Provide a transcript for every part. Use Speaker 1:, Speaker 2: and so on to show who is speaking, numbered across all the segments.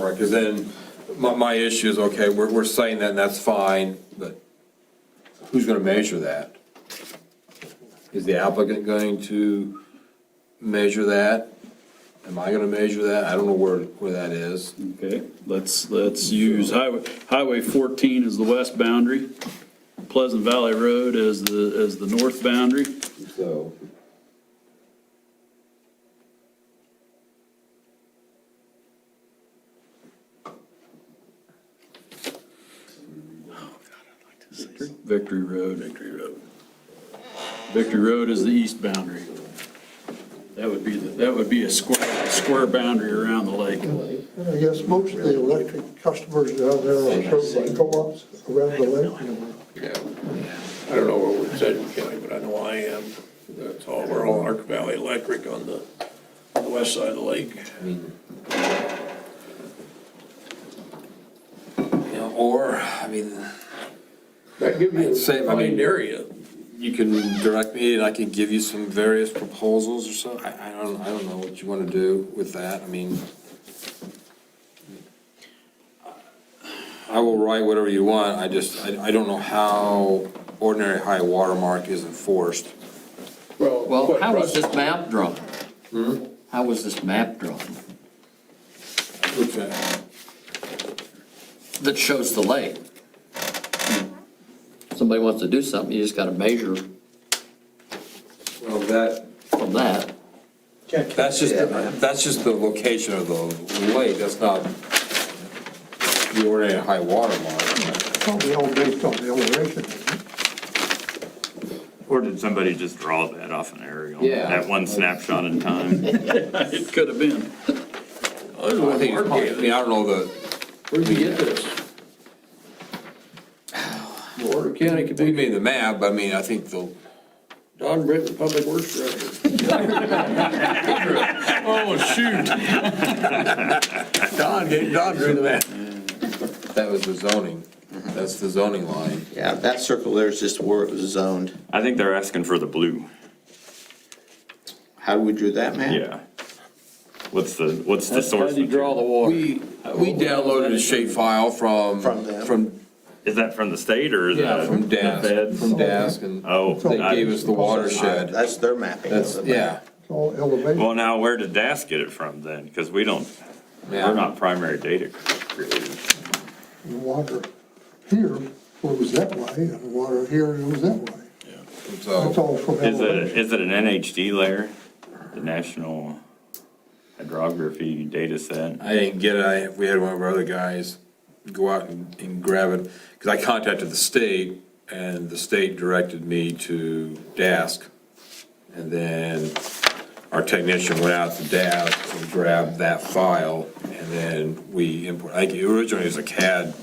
Speaker 1: Because then, my, my issue is, okay, we're, we're saying that, and that's fine, but who's gonna measure that? Is the applicant going to measure that? Am I gonna measure that? I don't know where, where that is.
Speaker 2: Okay, let's, let's use Highway, Highway 14 is the west boundary, Pleasant Valley Road is the, is the north boundary.
Speaker 1: So,
Speaker 2: Victory Road. Victory Road. Victory Road is the east boundary. That would be, the that would be a square, square boundary around the lake.
Speaker 3: And I guess most of the electric customers down there are served by co-ops around the lake.
Speaker 4: Yeah, I don't know where we're at in County, but I know I am. That's all, we're all Ark Valley Electric on the, on the west side of the lake.
Speaker 1: you know, or, I mean,
Speaker 4: That gives you
Speaker 1: I'd say, I
Speaker 4: a
Speaker 1: mean-
Speaker 4: wide area.
Speaker 1: you can direct me, and I can give you some various proposals or so. I, I don't, I don't know what you wanna do with that, I mean. I will write whatever you want, I just, I, I don't know how ordinary high watermark is enforced.
Speaker 5: Well,
Speaker 4: quite
Speaker 5: how was
Speaker 4: right.
Speaker 5: this map drawn? How was this map drawn that shows the lake? Hmm. Somebody wants to do something, you just gotta measure
Speaker 1: Well, that,
Speaker 5: from that.
Speaker 1: that's just, that's just the location of the lake, that's not the ordinary high watermark.
Speaker 3: Probably all based on the elevation.
Speaker 6: Or did somebody just draw that off an aerial?
Speaker 1: Yeah.
Speaker 6: That one snapshot in time?
Speaker 2: It could have been.
Speaker 4: I don't know
Speaker 1: I
Speaker 4: what
Speaker 1: think, it's
Speaker 4: Mark
Speaker 1: probably- I
Speaker 4: gave
Speaker 1: mean,
Speaker 4: us.
Speaker 1: I don't know the,
Speaker 4: Where'd you get this? The Oregon County
Speaker 1: we
Speaker 4: Committee,
Speaker 1: made the map, but I mean, I think the,
Speaker 4: Don Britton, Public Works Director. Oh, shoot. Don, gave- Don drew the map.
Speaker 1: that was the zoning, that's the zoning line.
Speaker 7: Yeah, that circle there is just where it was zoned.
Speaker 6: I think they're asking for the blue.
Speaker 7: How we drew that map?
Speaker 6: Yeah. What's the, what's the source? material?
Speaker 2: water?
Speaker 1: We, we downloaded a shape file from,
Speaker 7: From them.
Speaker 1: from,
Speaker 6: Is that from the state or is
Speaker 1: yeah,
Speaker 6: that?
Speaker 1: from
Speaker 6: the
Speaker 1: DASK,
Speaker 6: feds?
Speaker 1: from DASK, and
Speaker 6: Oh.
Speaker 1: they
Speaker 6: I-
Speaker 1: gave us the
Speaker 7: Alright,
Speaker 1: watershed.
Speaker 7: That's their mapping. of
Speaker 1: That's,
Speaker 7: the map.
Speaker 1: yeah,
Speaker 3: It's all elevation.
Speaker 6: Well, now where did DAS get it from then? Because we don't,
Speaker 1: Yeah.
Speaker 6: we're not primary data creators.
Speaker 3: The water here was that way and the water here was that way. That's
Speaker 1: so,
Speaker 3: all from
Speaker 6: Is it,
Speaker 3: elevation.
Speaker 6: is it an NHD layer? The National Hydrography Data Set?
Speaker 1: I didn't get it, I, we had one of our other guys go out and, and grab it, because I contacted the state, and the state directed me to DASK. And then our technician went out to DASK and grabbed that file, and then we import, I think originally it was a CAD,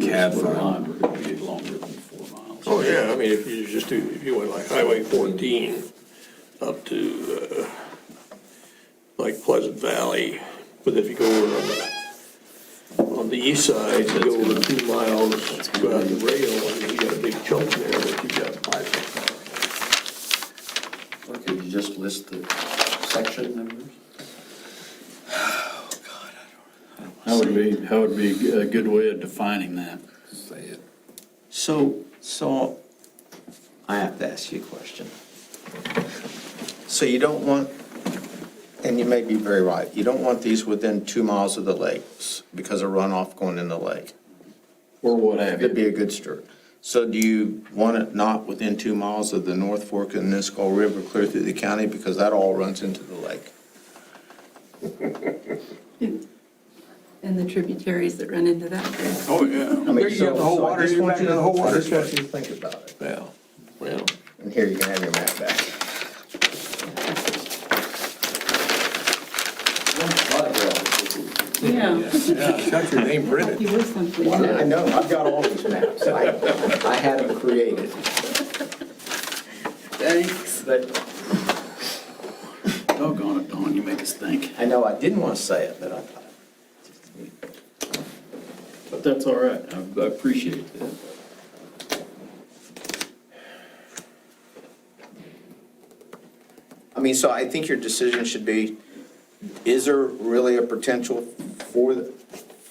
Speaker 1: CAD
Speaker 2: We're
Speaker 1: file.
Speaker 2: gonna be longer than four miles.
Speaker 4: Oh, yeah, I mean, if you just do, if you went like Highway fourteen up to, uh, like Pleasant Valley, but if you go over on the, on the east side, you go over two miles, go out the rail, and you got a big chunk there that you got pipe.
Speaker 5: Could you just list the section numbers?
Speaker 2: That would be, that would be a good way of defining that.
Speaker 1: Say it.
Speaker 7: So, so I have to ask you a question. So you don't want, and you may be very right, you don't want these within two miles of the lakes because of runoff going in the lake.
Speaker 2: Or what have
Speaker 7: That'd be a good start. So do you want it not within two miles of the North Fork of the Nisqually River clear through the county because that all runs into the lake?
Speaker 8: and the tributaries that run into that.
Speaker 4: Oh, yeah.
Speaker 7: I mean,
Speaker 4: There you
Speaker 7: so-
Speaker 4: got the whole
Speaker 7: so I
Speaker 4: water,
Speaker 7: just
Speaker 4: you're
Speaker 7: want
Speaker 4: back
Speaker 7: you
Speaker 4: to the
Speaker 7: to-
Speaker 4: whole
Speaker 7: I
Speaker 4: water.
Speaker 7: just want you to think about it.
Speaker 4: Yeah, well,
Speaker 7: And here, you can have your map back.
Speaker 8: Yeah.
Speaker 4: yeah, got your name printed.
Speaker 8: You were something.
Speaker 7: I know, I've got all these maps. I, I had them created. Thanks. But
Speaker 2: Doggone it, Dawn, you make us think.
Speaker 7: I know I didn't want to say it, but I thought.
Speaker 2: But that's all right, I I appreciate that.
Speaker 7: I mean, so I think your decision should be, is there really a potential for the-